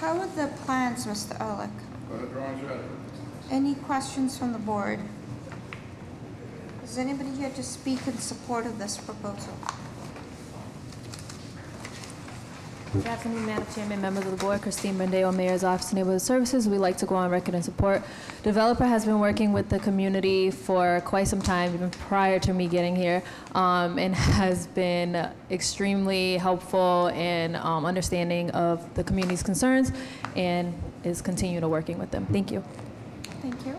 How are the plans, Mr. Ehrlich? Well, the drawings ready. Any questions from the board? Is anybody here to speak in support of this proposal? Good afternoon, Madam Chairman, members of the board. Christine Brandeo, Mayor's Office of Neighborhood Services. We'd like to go on record in support. Developer has been working with the community for quite some time, even prior to me getting here, um, and has been extremely helpful in um, understanding of the community's concerns and is continuing to working with them. Thank you. Thank you.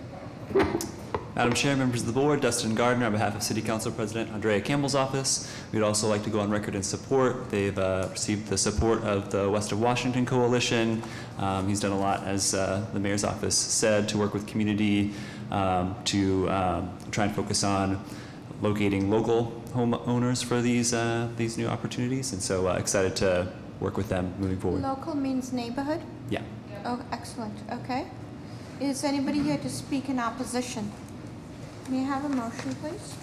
Madam Chair, members of the board, Dustin Gardner, on behalf of City Council President Andrea Campbell's office, we'd also like to go on record in support. They've uh, received the support of the West of Washington Coalition. Um, He's done a lot, as uh, the mayor's office said, to work with community um, to um, try and focus on locating local homeowners for these, uh, these new opportunities. And so uh, excited to work with them moving forward. Local means neighborhood? Yeah. Oh, excellent, okay. Is anybody here to speak in opposition? May I have a motion, please?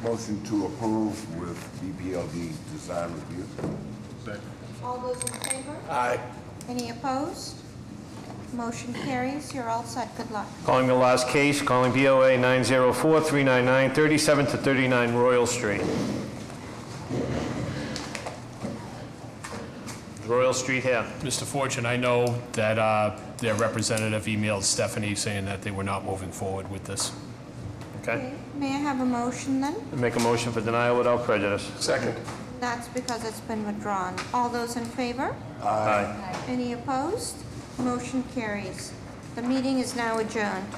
Motion to approve with BPLD design review. All those in favor? Aye. Any opposed? Motion carries, you're all set, good luck. Calling the last case, calling BOA 904-399, 37 to 39 Royal Street. Is Royal Street here. Mr. Fortune, I know that uh, their representative emailed Stephanie saying that they were not moving forward with this. Okay. May I have a motion then? Make a motion for denial without prejudice. Second. That's because it's been withdrawn. All those in favor? Aye. Any opposed? Motion carries. The meeting is now adjourned.